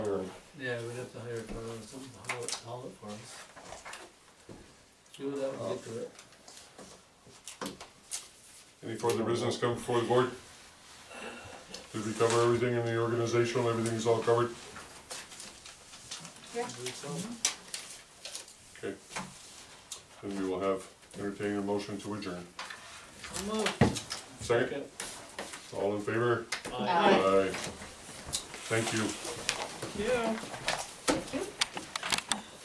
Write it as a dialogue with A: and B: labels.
A: Yeah, we'd have to hire a car or something, to haul it, haul it for us. Do that, we'll get to it.
B: Any further business come before the board? Did we cover everything in the organizational, everything's all covered?
A: I believe so.
B: Okay. Then we will have, entertaining a motion to adjourn.
A: Come on.
B: Second, all in favor?
A: Aye.
C: Aye.
B: Aye. Thank you.
A: Yeah.